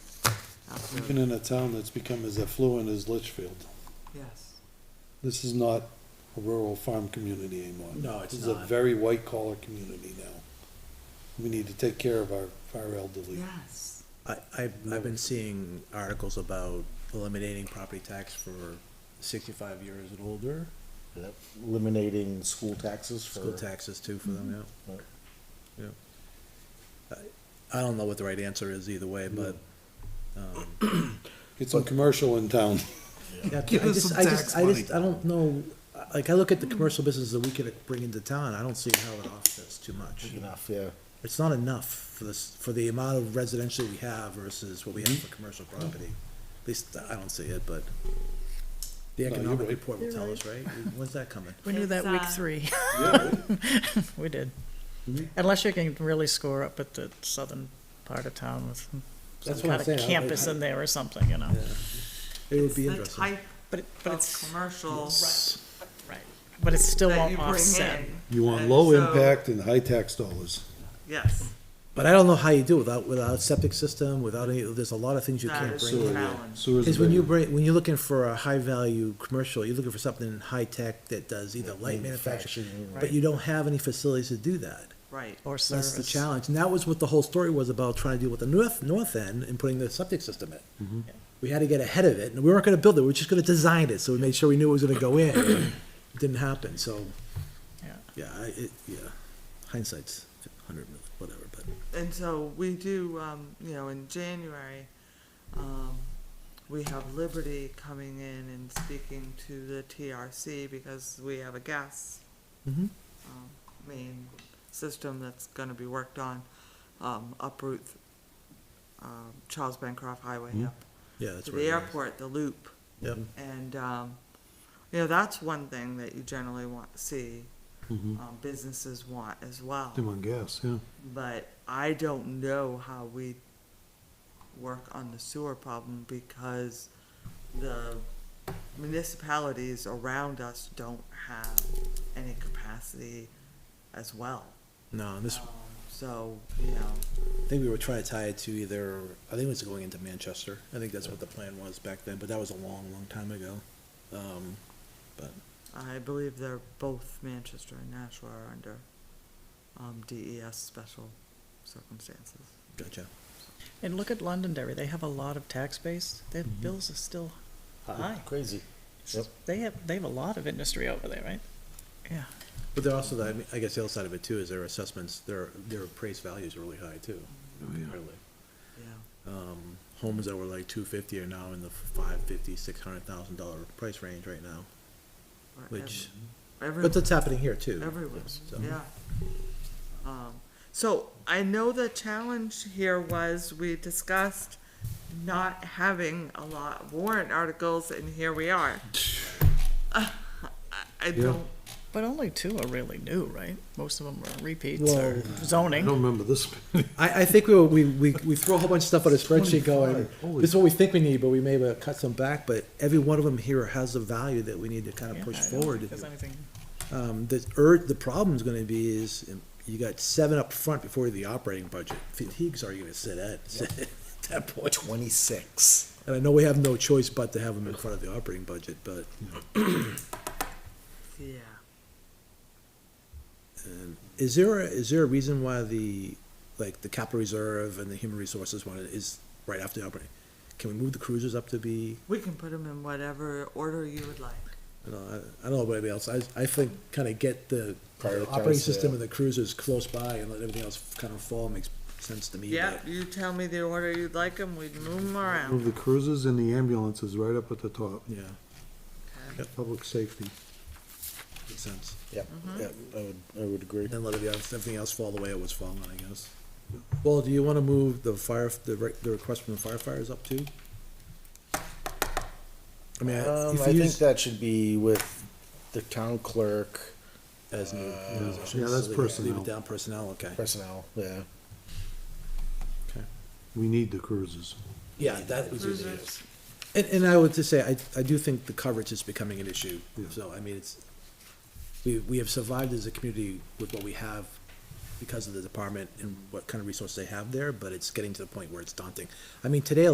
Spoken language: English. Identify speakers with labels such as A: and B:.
A: Even in a town that's become as affluent as Litchfield,
B: Yes.
A: this is not a rural farm community anymore.
C: No, it's
A: This is a
C: not.
A: very white collar community now. We need to take care of our, our elderly.
B: Yes.
C: I, I've, I've been seeing articles about eliminating property tax for sixty-five years and older,
D: eliminating school taxes for.
C: school taxes too for them, yeah.
D: Right.
C: Yeah. I, I don't know what the right answer is either way, but, um,
A: Get some commercial in town.
C: Yeah,
B: Give
C: I
B: us
C: just-
B: some
C: I
B: tax
C: just- I
B: money.
C: just, I don't know, like, I look at the commercial business that we could bring into town, I don't see how it offsets too much.
D: Enough, yeah.
C: It's not enough for this, for the amount of residential we have versus what we have for commercial property. At least, I don't see it, but the
A: you're
C: economic
A: right.
C: report will tell us, right? When's that coming?
E: We knew that week
B: It's, uh,
E: three. We did.
C: Mm-hmm.
E: Unless you can really score up at the southern part of town with some
C: That's what I'm
E: kind of
C: saying, I-
E: campus in there or something, you know?
C: It would be
B: The
C: interesting.
B: type
E: But, it- but
B: of
E: it's,
B: commercial
E: right, but it still
B: that you
E: won't
B: bring
E: offset.
B: in.
A: You want
B: And
A: low
B: so-
A: impact and high tax dollars.
B: Yes,
C: But I don't know how you do it without, without septic system, without any, there's a lot of things you
B: that
C: can't
B: is
C: bring in.
B: a
A: Sewer, yeah.
B: challenge.
A: Sewer's
C: Is
A: a
C: when
A: big
C: you
A: one.
C: bring, when you're looking for a high value commercial, you're looking for something high tech that does either light manufacturing,
D: Manufacturing.
C: but you don't have any facilities to do that.
B: Right.
E: Or
C: That's the
E: service.
C: challenge, and that was what the whole story was about, trying to deal with the north, north end and putting the septic system in. We had to get ahead of it, and we weren't gonna build it, we were just gonna design it, so we made sure we knew it was gonna go in. It Didn't happen, so,
E: Yeah.
C: yeah, I, it, yeah, hindsight's hundred, whatever, but.
B: And so we do, um, you know, in January, um, we have Liberty coming in and speaking to the TRC because we have a gas
C: Mhm.
B: um, main system that's gonna be worked on, um, up Route, um, Charles Bancroft
C: Mm-hmm.
B: Highway up
C: Yeah, that's
B: to
C: where.
B: the
C: it is.
B: airport, the loop.
C: Yep,
B: And, um, you know, that's one thing that you generally want, see,
C: Mm-hmm.
A: Mhm.
B: um, businesses want as well.
A: Them on gas, yeah.
B: But I don't know how we work on the sewer problem because the municipalities around us don't have any capacity as well.
C: no, and this,
B: Um, So, you know,
C: I think we were trying to tie it to either, I think it was going into Manchester. I think that's what the plan was back then, but that was a long, long time ago. Um, but,
B: I believe they're both Manchester and Nashua are under, um, DES special circumstances.
C: gotcha.
E: And look at Londonderry, they have a lot of tax base, their
C: Mm-hmm.
E: bills are still high.
D: Crazy. Yep.
E: They have, they have a lot of industry over there, right? Yeah,
C: But they're also, I mean, I guess the other side of it too is their assessments, their, their appraised values are really high too.
A: Oh,
C: Really.
B: Yeah.
C: Um, homes that were like two fifty are now in the five fifty, six hundred thousand dollar price range right now,
B: or ev-
C: which,
B: every-
C: but that's happening here too.
B: Everywhere,
C: So-
B: yeah. Um, so I know the challenge here was we discussed not having a lot of warrant articles and here we are. I- I don't,
E: but only two are really new, right? Most of them are repeats or
C: Well,
A: I
E: zoning.
A: don't remember this.
C: I, I think we, we, we, we throw a whole bunch of stuff on a spreadsheet going,
A: 25, holy-
C: this is what we think we need, but we may have cut some back, but every one of them here has a value that we need to kind
E: Yeah,
C: of push
E: I don't
C: forward.
E: think There's anything,
C: Um, the ur, the problem's gonna be is, um, you got seven up front before the operating budget. Fatigue's already gonna sit at, at that point.
D: Twenty-six.
C: And I know we have no choice but to have them in front of the operating budget, but,
B: yeah,
C: um, is there, a- is there a reason why the, like, the capital reserve and the human resources one is right after the operating? Can we move the cruisers up to be?
B: we can put them in whatever order you would like.
C: I don't know, I, I don't know about anybody else, I, I think kind of get the
D: Prioritize
C: operating system
D: the-
C: and the cruisers close by and let everything else kind of fall, makes sense to me.
B: Yeah,
C: but-
B: you tell me the order you'd like them, we'd move them
A: Move
B: around.
A: the cruisers and the ambulances right up at the top,
C: Yeah,
A: public safety.
C: makes sense.
D: Yep, yep, I would, I would agree.
C: And let everything else, everything else fall the way it was falling, I guess. Well, do you wanna move the fire, the, re- the request from the firefighters up too? I mean,
D: Um,
C: if
D: I
C: you
D: think
C: use.
D: that should be with the town clerk,
C: As
D: uh,
C: new.
A: Yeah, that's
C: Leave
A: personnel.
C: it down personnel, okay.
D: personnel, yeah.
A: We need the cruisers.
C: Yeah, that was easy.
B: Cruisers.
C: And, and I would just say, I, I do think the coverage is becoming an issue,
A: Yeah.
C: so, I mean, it's, we, we have survived as a community with what we have because of the department and what kind of resources they have there, but it's getting to the point where it's daunting. I mean, today